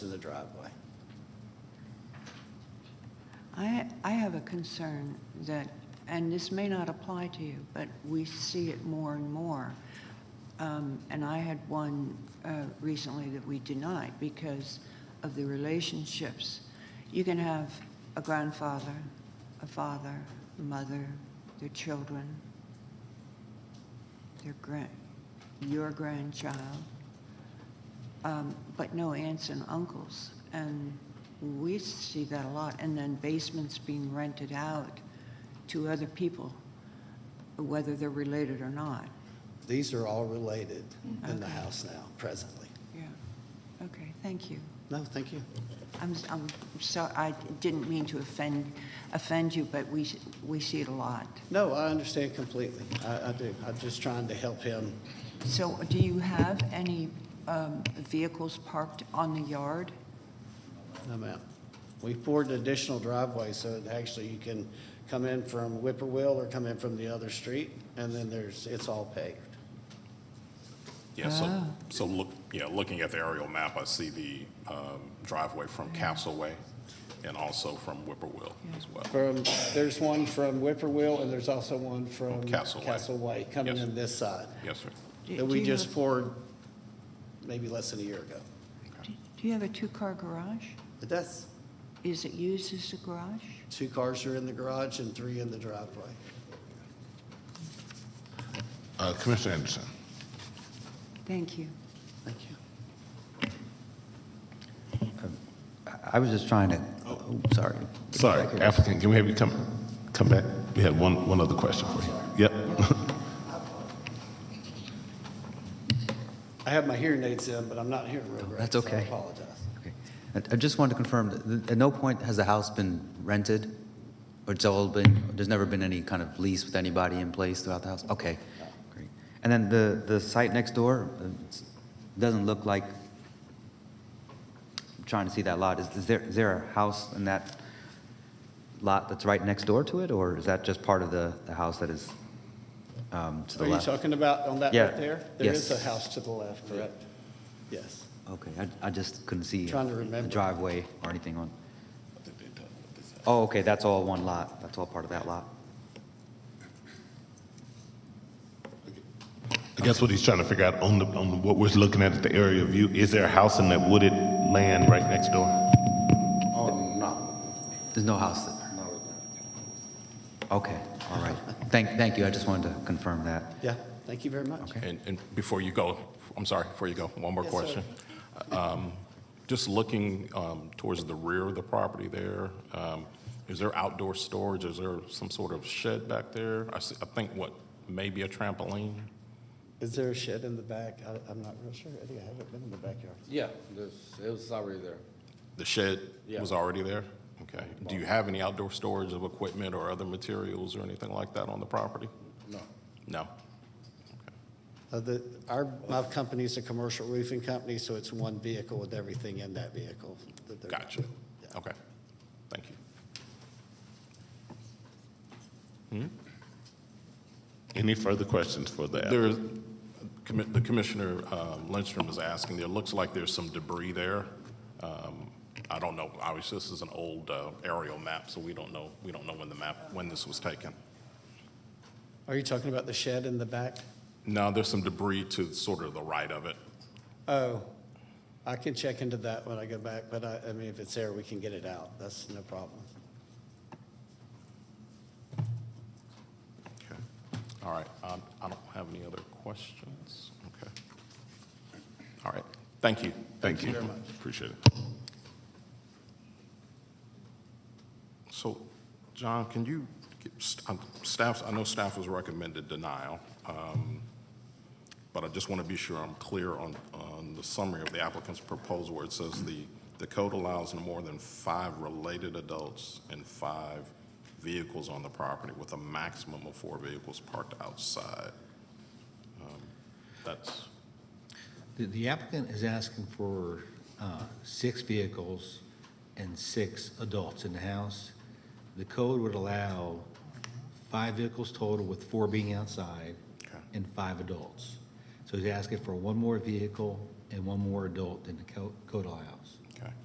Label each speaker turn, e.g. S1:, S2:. S1: to the driveway.
S2: I, I have a concern that, and this may not apply to you, but we see it more and more. Um, And I had one uh, recently that we denied because of the relationships. You can have a grandfather, a father, mother, their children, their grand, your grandchild, um, but no aunts and uncles. And we see that a lot. And then basements being rented out to other people, whether they're related or not.
S1: These are all related in the house now, presently.
S2: Yeah. Okay, thank you.
S1: No, thank you.
S2: I'm, I'm so, I didn't mean to offend, offend you, but we, s- we see it a lot.
S1: No, I understand completely. I, I do. I'm just trying to help him.
S2: So do you have any um, vehicles parked on the yard?
S1: I'm out. We poured an additional driveway so that actually you can come in from Whippoorwill or come in from the other street, and then there's, it's all paved.
S3: Yeah, so,
S2: Ah.
S3: so look, yeah, looking at the aerial map, I see the um, driveway from Castleway and also from Whippoorwill as well.
S1: From, there's one from Whippoorwill, and there's also one from
S3: Castle Way.
S1: Castle Way, coming
S3: Yes.
S1: in this side,
S3: Yes, sir.
S2: Do-
S1: that
S2: do
S1: we
S2: you
S1: just
S2: have-
S1: poured maybe less than a year ago.
S2: Do do you have a two-car garage?
S1: But that's,
S2: Is it used as a garage?
S1: two cars are in the garage and three in the driveway.
S4: Uh, Commissioner Anderson,
S2: Thank you.
S1: Thank you.
S5: I was just trying to, oh, sorry.
S4: sorry, applicant, can we have you come, come back? We have one, one other question for you. Yep.
S1: I have my hearing aids in, but I'm not hearing real great.
S5: that's
S1: so I
S5: okay.
S1: apologize.
S5: Okay. I I just wanted to confirm, that at no point has the house been rented? Or it's all been, there's never been any kind of lease with anybody in place throughout the house? Okay, great. And then the, the site next door, uh, it's- doesn't look like, I'm trying to see that lot. Is is there, is there a house in that lot that's right next door to it? Or is that just part of the, the house that is um, to the
S1: Are you
S5: left?
S1: talking about on that
S5: Yeah.
S1: right there? There is a
S5: Yes.
S1: house to the left, correct? Yes.
S5: Okay, I, I just couldn't see.
S1: Trying to
S5: a- a
S1: remember.
S5: Driveway or anything on. Oh, okay, that's all one lot, that's all part of that lot.
S4: I guess what he's trying to figure out on the, on what we're looking at, the area of view, is there a house in that wooded land right next door?
S6: Oh, no.
S5: There's no house there.
S6: no.
S5: Okay, all right. Thank, thank you, I just wanted to confirm that.
S1: Yeah, thank you very much.
S3: And, and before you go, I'm sorry, before you go, one more
S1: Yes, sir.
S3: question. Um, Just looking um, towards the rear of the property there, um, is there outdoor storage? Is there some sort of shed back there? I see, I think what, maybe a trampoline?
S1: Is there a shed in the back? I, I'm not real sure. I think I haven't been in the backyard.
S6: Yeah, this, it was already there.
S3: The shed was
S6: Yeah.
S3: already there? Okay. Do you have any outdoor storage of equipment or other materials or anything like that on the property?
S6: No.
S3: No?
S1: Uh, the, our, my company's a commercial roofing company, so it's one vehicle with everything in that vehicle. that they're-
S3: Gotcha.
S1: Yeah.
S3: Okay. Thank you.
S4: Any further questions for the applicant?
S3: There's, commi- the Commissioner um, Lindstrom is asking, there looks like there's some debris there. Um, I don't know, obviously, this is an old uh, aerial map, so we don't know, we don't know when the map, when this was taken.
S1: Are you talking about the shed in the back?
S3: No, there's some debris to sort of the right of it.
S1: Oh, I can check into that when I go back, but I, I mean, if it's there, we can get it out. That's no problem.
S3: Okay. All right, Um, I don't have any other questions. Okay. All right, thank you.
S4: Thank you. Appreciate it.
S3: So, John, can you, get st- um, staff, I know staff has recommended denial, um, but I just want to be sure I'm clear on, on the summary of the applicant's proposal where it says the, the code allows no more than five related adults and five vehicles on the property with a maximum of four vehicles parked outside. Um, That's,
S7: The- The applicant is asking for uh, six vehicles and six adults in the house. The code would allow five vehicles total with four being outside
S3: Okay.
S7: and five adults. So he's asking for one more vehicle and one more adult than the co- code allows.